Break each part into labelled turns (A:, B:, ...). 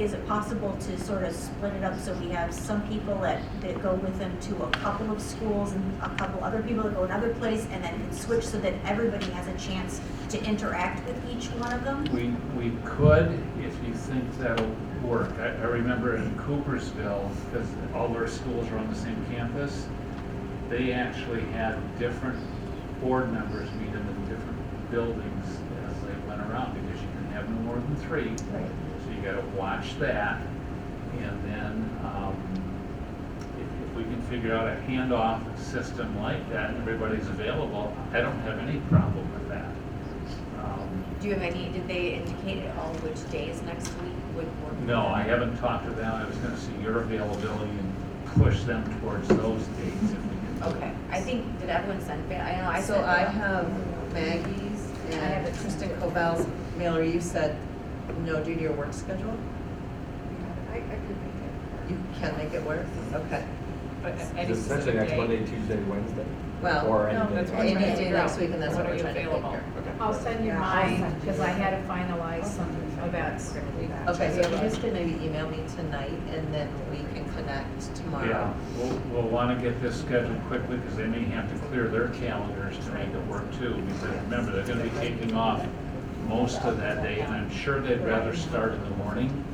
A: Is it possible to sort of split it up so we have some people that, that go with them to a couple of schools and a couple other people that go another place and then can switch so that everybody has a chance to interact with each one of them?
B: We, we could, if you think that'll work. I, I remember in Coopersville, because all their schools are on the same campus, they actually had different board members meet in the different buildings as they went around, because you can have no more than three. So you gotta watch that, and then, um, if, if we can figure out a handoff system like that, and everybody's available, I don't have any problem with that. Um,
C: Do you have any, did they indicate at all which days next week would work?
B: No, I haven't talked to them. I was gonna see your availability and push them towards those dates if we can.
C: Okay, I think, did everyone send, fa- I know I
D: So
C: sent
D: I uh,
C: it out.
D: have Maggie's
C: have
D: and
C: it.
D: Kristen Cobell's. Mallory, you said no due to your work schedule?
E: I, I could make
D: You can make it work? Okay.
C: uh,
F: Essentially next Monday, Tuesday, Wednesday.
D: Well,
F: Or
G: No,
F: any
G: that's
F: day.
G: what I'm
D: Any
G: trying to
D: day
G: figure
D: next
G: out.
D: week, and that's what
G: are
D: we're
G: you
D: trying to
G: available?
D: figure.
F: Okay.
G: I'll send you
E: Yeah, I'll
G: mine,
E: send you
G: because I
E: mine.
G: had to finalize some events.
D: Okay, so if you just can maybe email me tonight, and then we can connect
B: Yeah,
D: tomorrow.
B: we'll, we'll wanna get this scheduled quickly because they may have to clear their calendars to make it work too. Because remember, they're gonna be taking off most of that day and I'm sure they'd rather start in the morning.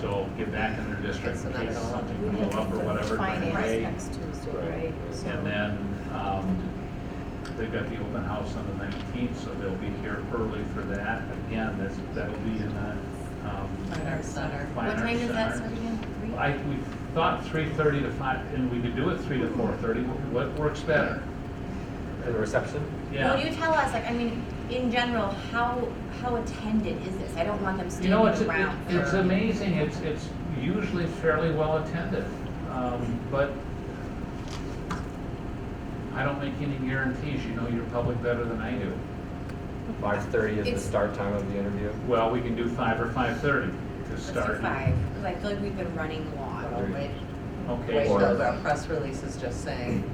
B: So get back in their district in case something blew up or whatever during the
G: Finance
B: day.
G: next Tuesday, right? So-
B: And then, um, they've got the open house on the nineteenth, so they'll be here early for that. Again, that's, that'll be in the, um.
D: Fine Arts Center.
B: Fine
C: What time
B: Arts
C: does that
B: Center.
C: start again? Three?
B: I, we thought three thirty to five, and we could do it three to four thirty, what works better?
F: For the reception?
C: Well, you
B: Yeah.
C: tell us, like, I mean, in general, how, how attended is this? I don't want them
B: You
C: standing
B: know, it's,
C: around.
B: it's
C: for-
B: amazing, it's, it's usually fairly well attended, um, but I don't make any guarantees, you know your public better than I do.
F: Five thirty is the
C: It's-
F: start time of the interview.
B: Well, we can do five or five thirty to
C: Let's do
B: start.
C: five, 'cause I feel like we've been running long.
D: Well, Wait wait
B: Okay,
F: Or-
D: till our press release is just saying,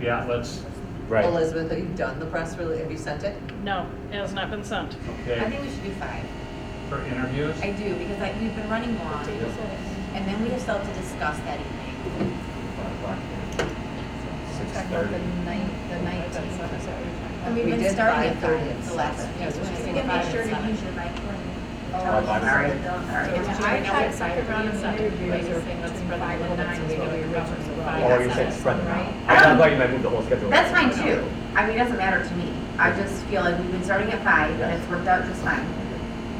B: yeah, let's,
F: Right.
D: Elizabeth, have you done the press release? Have you sent it?
H: No, it has not been sent.
C: I
B: okay,
C: think we should do five.
B: for interviews?
C: I do, because like, we've been running long, and then we have still to discuss that evening.
F: Six
G: Talking about the
F: thirty.
G: ninth, the nineteenth.
C: And we've
D: We
C: been
D: did
C: starting at
D: 5:30
C: five,
D: and
C: the last,
D: seven.
C: yeah, we should
A: You
C: say
A: can make
C: five
A: sure
C: and
A: to
C: seven.
A: use your mic when.
F: Five, five,
A: Sorry.
F: seven.
A: Sorry.
G: Yeah, I tried to second round of interviews or between five and nine, so we were running so long.
F: Oh, you said spread them out.
G: Right?
F: I thought- I thought you might move the whole schedule.
C: That's fine too. I mean, it doesn't matter to me. I just feel like we've been starting at five and it's worked out just fine.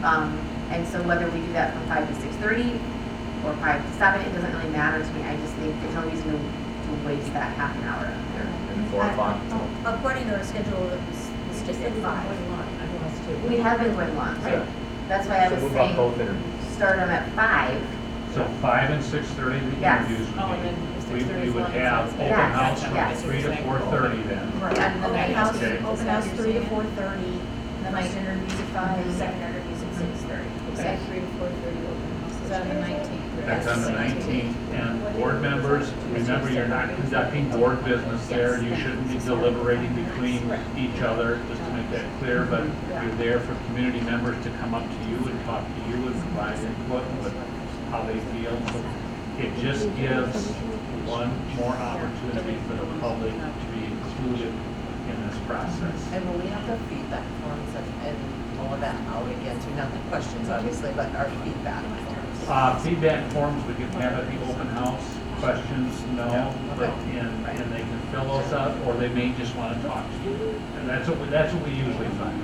C: Um, and so whether we do that from five to six thirty or five to seven, it doesn't really matter to me. I just think there's no reason to, to waste that half an hour.
F: Yeah, And four o'clock. till-
A: Uh, oh, According to our schedule, it was, it's just at five.
C: We have been going long.
F: Yeah.
C: That's why I
F: So
C: was
F: move up both
C: saying,
F: interviews.
C: start them at five.
B: So five and six thirty, the
C: Yes.
B: interviews
H: Oh, and then
B: would be, we,
H: 6:30
B: we
H: is
B: would
H: one, so
B: have
H: it's-
B: open
C: Yes,
B: house from
C: yes.
B: three to four thirty then.
C: And then
A: Open
C: I-
A: house,
B: Okay.
A: open house three to four thirty, the
G: Night
A: first interviews at five, second interviews at
C: Mm-hmm.
A: six thirty.
G: Okay, three to four thirty open house. Is that the nineteenth?
B: That's on the nineteenth, and board members, remember, you're not conducting board business there, you shouldn't be deliberating between each other, just to make that clear, but you're there for community members to come up to you and talk to you and provide input with how they feel. It just gives one more opportunity for the public to be included in this process.
D: And will we have the feedback forms and- and all of that out again, so not the questions, obviously, but our feedback forms?
B: Uh, feedback forms, we can have at the open house, questions, no, but, and, and they can fill those out, or they may just wanna talk to you. And that's what, we- that's what we usually find.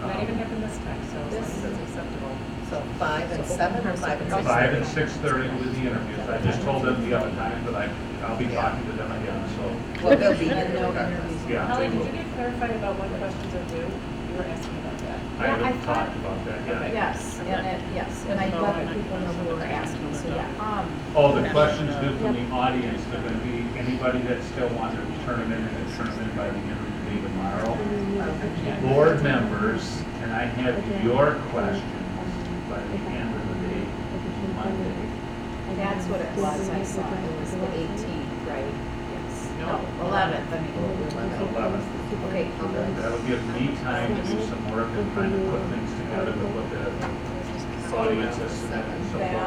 B: Um,
H: Not even happened this time, so as long as it's acceptable.
D: So five and seven or five and six?
B: Five and six thirty with the interviews, I just told them the other time that I, I'll be talking to them again, so,
D: Well, they'll be in there regardless.
B: yeah,
H: Holly,
B: they
H: did you
B: will.
H: get clarified about what questions are due? You were asking about that.
B: I haven't talked about that yet.
G: Yes, and it, yes, and I let the people know who were asking, so yeah. Um,
B: Oh, the questions due from the audience, they're gonna be, anybody that still wants to turn them in, and turn them in by the end of the day tomorrow. board members, and I have your questions by the end of the day, Monday.
G: That's what it was, I saw, it was the eighteenth, right? Yes.
B: No.
G: Eleventh, I mean.
B: Eleven.
G: Okay,
B: That'll give me time to do some work and trying to put things together with what the audience has said and so forth.